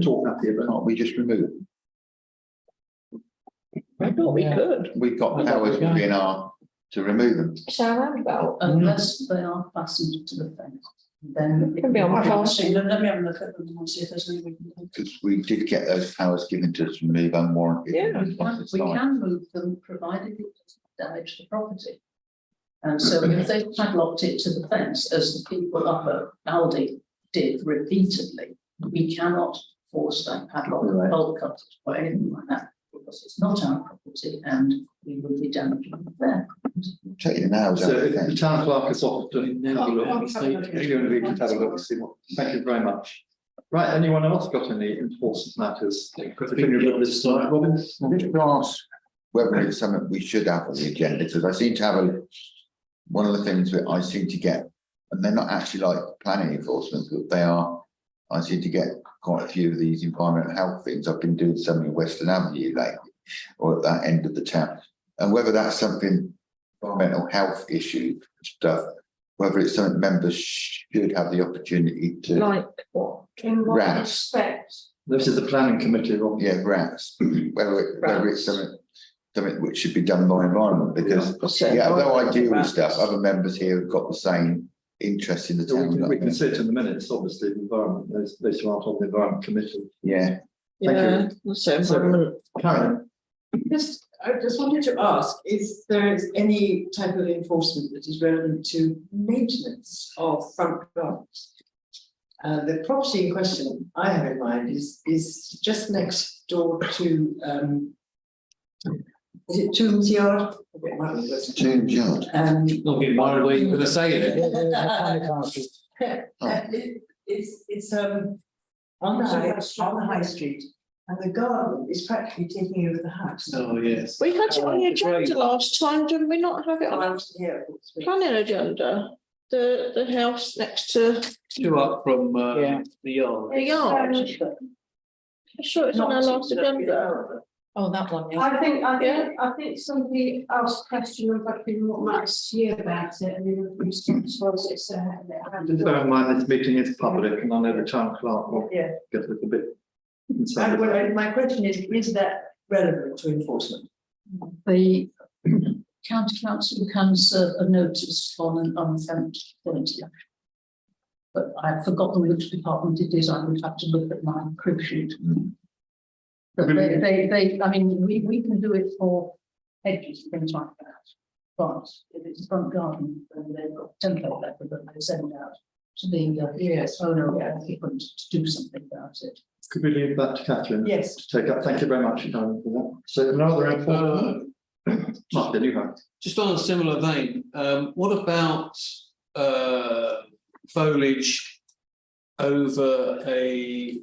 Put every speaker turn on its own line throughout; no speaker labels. talking up here, but can't we just remove?
I thought we could.
We've got powers within our, to remove them.
Shall roundabout,
Unless they are fastened to the fence, then.
Could be on
I haven't
the
seen them. Let me have a look at them and see if there's any. we can do.
Because we did get those powers given to us to remove unwarranted.
Yeah.
We can,
responses,
we
like,
can move them provided it doesn't damage the property. And so if they padlocked it to the fence, as the people up at Aldi did repeatedly, we cannot force that padlock or
Right.
bolt cut or anything like that. Because it's not our property and we would be damaging there.
Take your nails out
So
of
if the
the
town clerk is off doing now,
Oh, I'll
look,
have a look.
if you and we can have a look and see what, thank you very much. Right, anyone else got any important matters? Because we can look this slide, Robin.
fence. Just to ask whether it's something we should have on the agenda, because I seem to have a, one of the things that I seem to get, and they're not actually like planning enforcement, but they are, I seem to get quite a few of these environmental health things. I've been doing some in Western Avenue lately, or at that end of the town. And whether that's something, environmental health issue stuff, whether it's something members should have the opportunity to.
Like what?
in what
Round.
respect?
This is the planning committee, Robin.
Yeah, grants, whether, it- whether it's
Grants.
something, something which should be done by environment, because,
What's
yeah, although I deal with
environment
stuff,
grants?
other members here have got the same interest in the
So we can, we can
town.
sit in the minutes, obviously, the environment, those, those who aren't on the environment committee.
Yeah,
Thank you.
Yeah, that's environment.
Karen,
Just, I just wanted to ask, is there is any type of enforcement that is relevant to maintenance of front gardens? Uh, the property in question I have in mind is, is just next door to, um. Is it Toons Yard? I forget what it was.
Toon Yard.
Um,
Looking my way, you're gonna say it.
uh, it- it's, it's, um, on the high, on the high street. And the garden is practically taking over the house.
Oh, yes.
We had it on the
It's very-
agenda last time, didn't we not have it on
Around here. it's-
the planning agenda? The, the house next to
Two up from, uh, the yard.
the yard. I'm um, sure it's on our last agenda.
Oh, that one,
I think, I
Yeah.
think, I think somebody else questioned about being what last year about it, and then the response was it's a.
just bear in mind, this meeting is public and I know the town clerk will
Yeah.
get a little bit.
I,
concerned.
well, I- my question is, is that relevant to enforcement?
the county council can serve a notice on an unfenced property. But I've forgotten which department it is, I would have to look at my crib sheet.
Mm.
But they, they, they, I mean, we, we can do it for hedges, things like that. But if it's front garden, then they've got template letter that they send out to the, uh,
Yes.
owner or occupant to do something about it.
Could we leave that to Catherine?
Yes.
to take up. Thank you very much, Karen, for that. So no other important. Martin, you have.
Just on a similar vein, um, what about, uh, foliage over a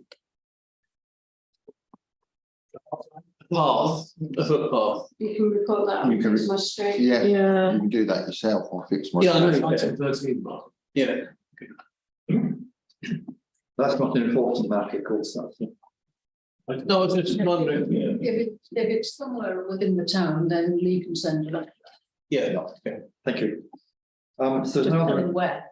path, a footpath?
You can record that,
You can
it's my straight.
yeah, you
Yeah,
can do that yourself or fix my.
Yeah, I know, it's item thirteen, Mark. Yeah,
That's not an important matter, of course, that's. not-
no, I was just wondering,
If it, if it's somewhere within the town, then Lee can send a letter.
yeah.
Thank you. Um, so
Just
now,
tell
the-
him where.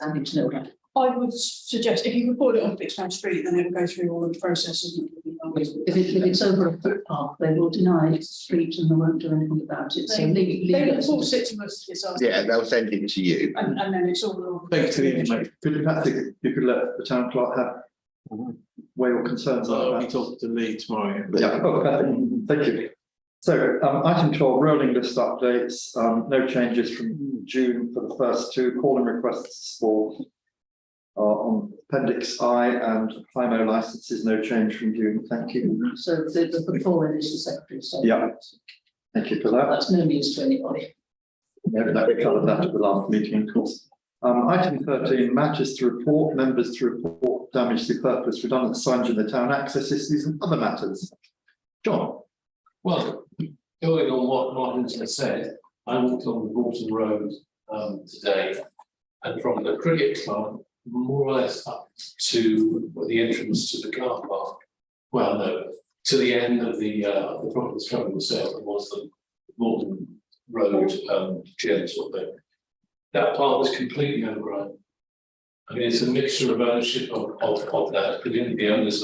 I need to know that.
I would suggest if you record it on Fixman Street, then it'll go through all of the processes. and it'll be done.
If it, if it's over a footpath, they will deny it's a street and they won't do anything about it, so
They-
Lee, Lee.
They will
gets-
force it to us, it's us,
Yeah, they'll send it to you.
and, and then it's all.
Thanks to the mate.
could you perhaps, you could let the town clerk have where your concerns
So
are.
I'll be
about-
talking Oh, to Lee tomorrow.
Yeah, oh, perfect. thank you. So, um, item twelve, rolling list updates, um, no changes from June for the first two, calling requests for are on appendix I and Plimo licenses, no change from June, thank you.
So the, the, the foreign is the secretary, so.
Yeah. Thank you for that.
That's no news to anybody.
No, that we covered that at the last meeting, of course. Um, item thirteen, matters to report, members to report damage to purpose, redundant signs in the town, access issues and other matters. John,
Well, going on what Martin's has said, I walked on the Walton Road um today. And from the cricket club, more or less up to the entrance to the car park. Well, no, to the end of the uh the property's coming itself, it was the Walton Road um gym sort of thing. That part was completely overgrown. I mean, it's a mixture of ownership of, of, of that, presumably the owners